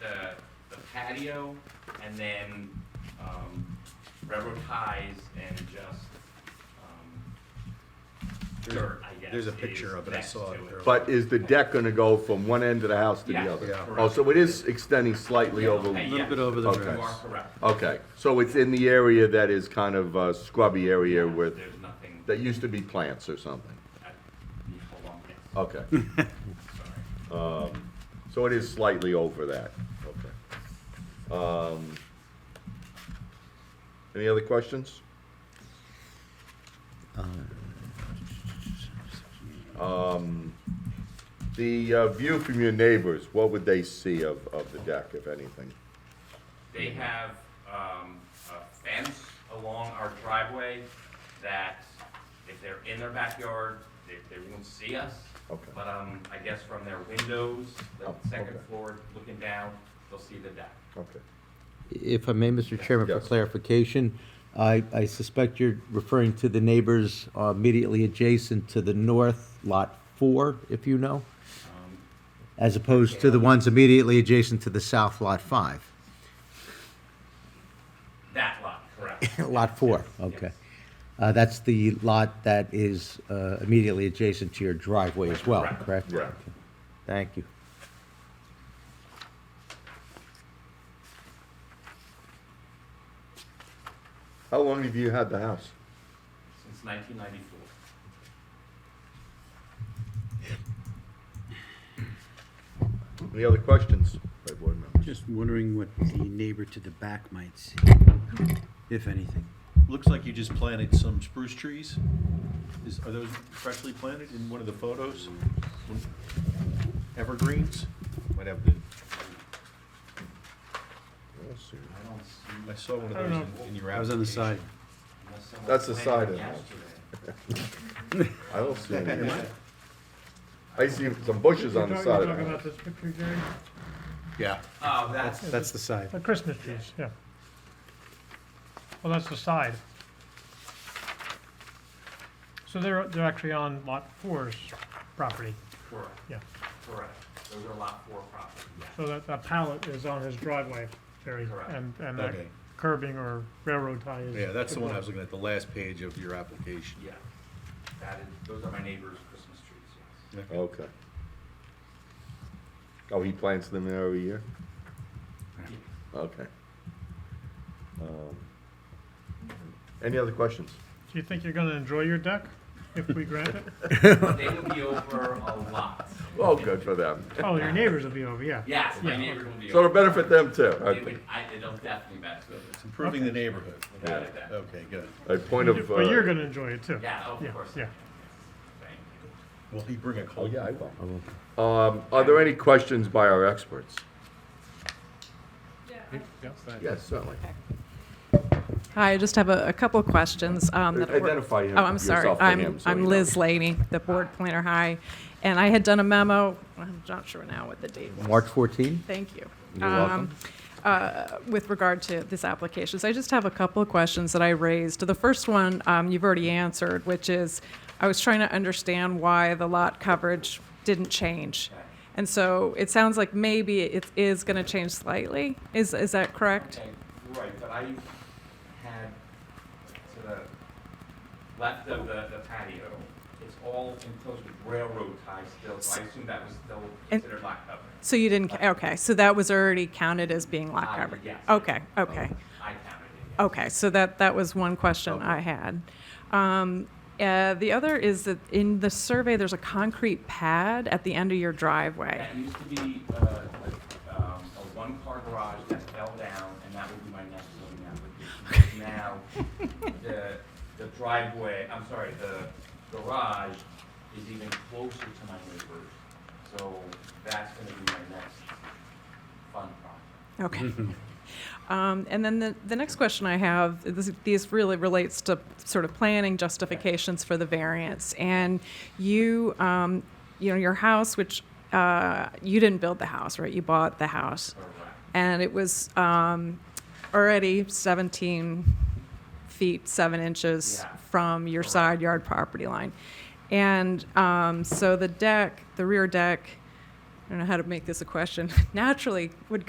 the, the patio and then, um, railroad ties and just, um, There's- dirt, I guess. there's a is picture of it. I next saw to it. But is the deck gonna go from one end of the house to the Yeah, other? Yeah. Oh, so it is extending slightly Yeah, over. okay, Little yeah. bit over the Okay. You are dress. correct. Okay, so it's in the area that is kind of a scrubby area Yeah, with, There's nothing, that used to be plants or something. I- yeah, hold on, yes, Okay, sorry. so it is slightly over that, okay. Um, Any other questions? Um, The uh, view from your neighbors, what would they see of, of the deck, if anything? They have um, a fence along our driveway that if they're in their backyard, they, they won't see us. Okay. But um, I guess from their windows, the Oh, second okay. floor looking down, they'll see the deck. Okay. If I may, Mr. Chairman, for Yes. clarification, I, I suspect you're referring to the neighbors uh, immediately adjacent to the north lot four, if you know, Um, as opposed to the ones immediately adjacent to the south lot five. That lot, correct. Lot four, okay. Uh, That's the lot that is uh, immediately adjacent to your driveway as well, Correct. correct? Right. Thank you. How long have you had the house? Since 1994. Any other questions by board members? Just wondering what the neighbor to the back might see, if anything. Looks like you just planted some spruce trees. Is, are those freshly planted in one of the photos? Evergreens? Might have the, Yes, sir. I don't see I saw one of those in- in your I was on the side. application. unless someone That's the side planted of the house. yesterday. I don't see any. I see some bushes on the You're side of talking you're talking it. about this picture, Jerry? Yeah. Oh, that's, That's the side. The Christmas trees, yeah. Well, that's the side. So they're, they're actually on lot four's property, correct, yeah. correct. Those are lot four property, yeah. So that, that pallet is on his driveway, Jerry, Correct. and, and that Okay. curbing or railroad tie is. Yeah, that's the one I was looking at, the last page of your application. Yeah, that is, those are my neighbor's Christmas trees, yes. Okay. Oh, he plants them there every year? Okay. Um, Any other questions? Do you think you're gonna enjoy your deck if we grant it? They will be over a lot. Oh, good for them. Oh, your neighbors will be over, yeah. Yes, my Yeah. neighbors will be So over. it'll benefit them too. It A- would, I, it'll definitely benefit It's them. improving the neighborhood. Without a doubt. Okay, good. A point of. But you're uh, gonna enjoy it too. Yeah, of course. I Yeah. can, yes. Thank you. Will he bring a Oh, cold? yeah, I will. Um, Are there any questions by our experts? Hmm? Yes, certainly. Hi, I just have a, a couple of questions. um, that were- Identify him- Oh, I'm sorry. yourself for him I'm, so he I'm knows. Liz Laney, the board planner. Hi. And I had done a memo, I'm not sure now what the date was. March 14? Thank you. You're welcome. Um, uh, With regard to this application, so I just have a couple of questions that I raised. The first one, um, you've already answered, which is, I was trying to understand why the lot coverage didn't change. And so it sounds like maybe it is going to change slightly. Is, is that correct? Okay, Right, but I had to the left of the, the patio, it's all enclosed with railroad ties still, so I assume that was still And- considered lot coverage. So you didn't, ca- okay, so that was already counted as being lot Uh, coverage? yes. Okay, okay, I counted it, yes. okay, so that, that was one question I had. Um, uh, The other is that in the survey, there's a concrete pad at the end of your driveway. That used to be, uh, a, um, a one-car garage that fell down, and that would be my next building application. Now, the, the driveway, I'm sorry, the garage is even closer to my neighbors, so that's gonna be my next fun project. Okay. Um, And then the, the next question I have, this, these really relates to sort of planning justifications for the variance. And you, um, you know, your house, which, uh, you didn't build the house, right? You bought the house. Correct. and it was um, already 17 feet 7 inches Yeah. from your side yard property line and um, so the deck the rear deck i don't know how to make this a question naturally would